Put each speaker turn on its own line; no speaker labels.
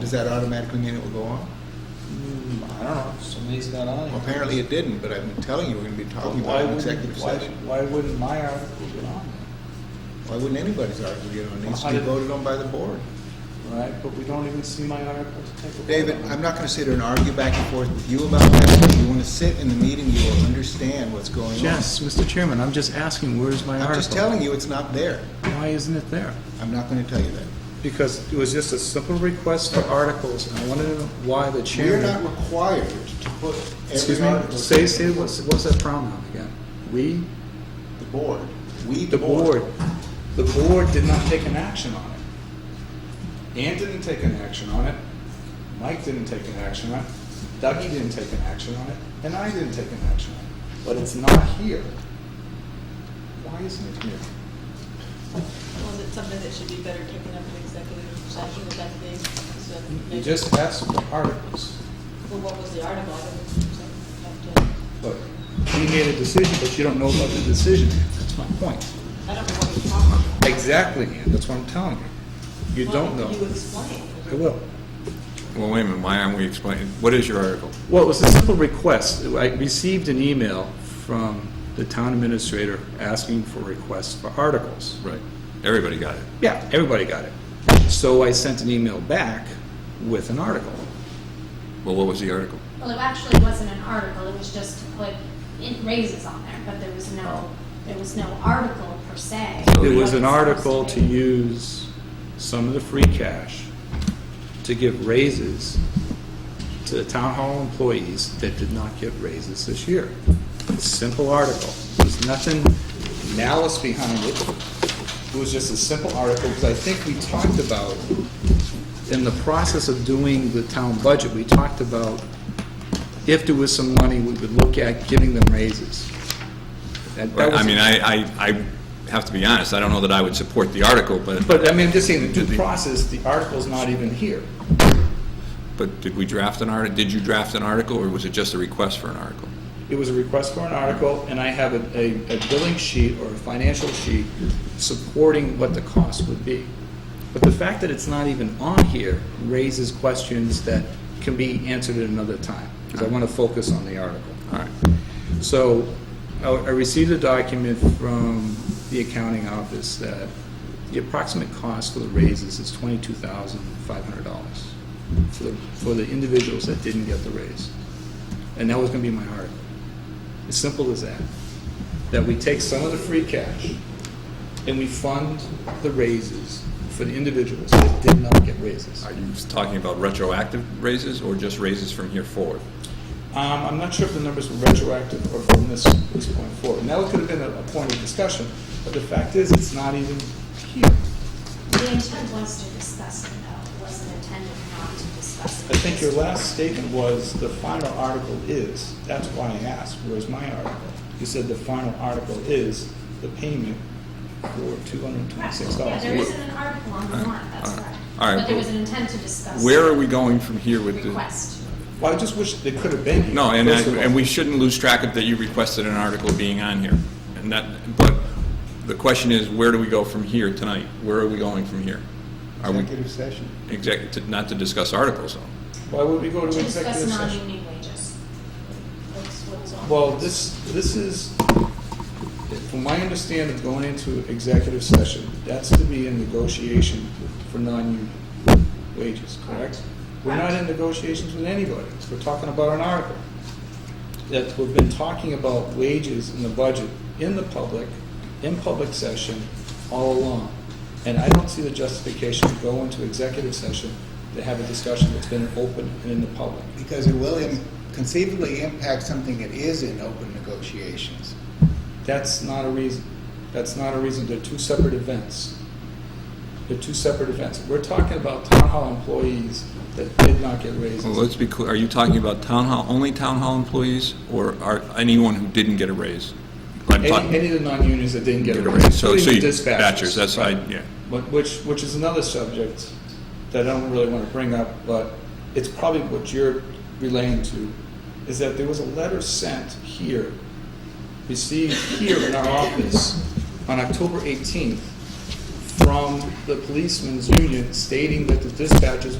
Does that automatically mean it will go on?
Hmm, I don't know, somebody's got on it.
Well, apparently it didn't, but I've been telling you, we're gonna be talking
Why
about an
wouldn't-
executive
why-
session.
Why wouldn't my article get on
Why wouldn't anybody's article get on? It needs to be
Hundred-
voted on by the board.
there, right? But we don't even see my article to take a vote
David,
on.
I'm not gonna sit here and argue back and forth with you about that. If you wanna sit in the meeting, you will understand what's going on.
Yes, Mr. Chairman, I'm just asking, where's my article?
I'm just telling you, it's not there.
Why isn't it there?
I'm not gonna tell you that.
Because it was just a simple request for articles, and I wanted to know why the
We're
chairman...
not required to put
Excuse
every
me,
article.
say, say, what's, what's that pronoun again? We?
The board. We,
The board. The board did not take an action on it. Ann didn't take an action on it.
Mike didn't take an action on it, Dougie didn't take an action on it, and I didn't take an action on it. But it's not here. Why isn't it here?
Was it something that should be better taken up in executive session, is that the thing? So
You
maybe-
just asked for articles,
Well, what was the article? I don't know.
but you made a decision, but you don't know about the decision. That's my point.
I don't know what you're talking about.
Exactly, Ann, that's what I'm telling you. You
Why
don't know.
You explain.
I will.
Well, wait a minute, why aren't we explaining, what is your article?
Well, it was a simple request. I received an email from the town administrator asking for requests for articles.
Right. Everybody got it.
Yeah, everybody got it. So I sent an email back with an article.
Well, what was the article?
Well, it actually wasn't an article, it was just to put in raises on there, but there was no, there was no article per se.
It was an
What it's
article
supposed
to use some of the free cash to give raises to the town hall employees that did not get raises this year. Simple article. There's nothing
malice behind it. It was just a simple article, because I think we talked about,
in the process of doing the town budget, we talked about if there was some money, we would look at giving them raises. That- that
Right, I
was-
mean, I, I, I have to be honest, I don't know that I would support the article, but,
But, I mean, I'm just saying, the due process, the article's not even here.
but did we draft an article? Did you draft an article, or was it just a request for an article?
It was a request for an article, and I have a, a a billing sheet or a financial sheet supporting what the cost would be. But the fact that it's not even on here raises questions that can be answered at another time, because I want to focus on the article.
All right.
So I I received a document from the accounting office that the approximate cost for the raises is twenty-two thousand five hundred dollars for the, for the individuals that didn't get the raise. And that was gonna be my article. As simple as that. That we take some of the free cash and we fund the raises for the individuals that did not get raises.
Are you talking about retroactive raises, or just raises from here forward?
um, I'm not sure if the numbers were retroactive or from this, this point forward. Now, it could have been a, a point of discussion, but the fact is, it's not even here.
to be. The intent was to discuss it, though, it wasn't intended not to discuss it.
I think your last statement was, the final article is, that's why I asked, where's my article? You said the final article is the payment for two hundred and
Correct.
twenty-six
Yeah,
dollars.
there isn't an article on the warrant,
all
that's
right.
correct.
All right,
But there
but
was an intent to discuss.
Where
it.
are we going from here with the?
Request.
Well, I just wish they could have been here.
No, and, I-
first of all.
and we shouldn't lose track of that you requested an article being on here. And that, but the question is, where do we go from here tonight? Where are we going from here? Are we,
Executive session.
exec, to- not to discuss articles, though?
Why would we go
To
to
discuss
executive session?
non-union wages. That's what was on.
Well, this, this is, from my understanding, going into executive session, that's to be in negotiation for non-union wages, correct? We're not in negotiations with anybody, we're talking about an article. That we've been talking about wages in the budget, in the public, in public session, all along. And I don't see the justification to go into executive session to have a discussion that's been open and in the public.
Because it will im- conceivably impact something that is in open negotiations.
That's not a reason, that's not a reason, they're two separate events. They're two separate events. We're talking about town hall employees that did not get
Well,
raises.
let's be clear, are you talking about town hall, only town hall employees, or are anyone who didn't get a raise? I'm
Any,
talking-
any of the non-unions that didn't get a
Get a
raise,
raise, so, so
including
you,
the
dispatchers,
dispatchers.
that's, I, yeah.
But Which, which is another subject that I don't really want to bring up, but it's probably what you're relating to, is that there was a letter sent here, received here in our office on October 18th from the policemen's union stating that the dispatchers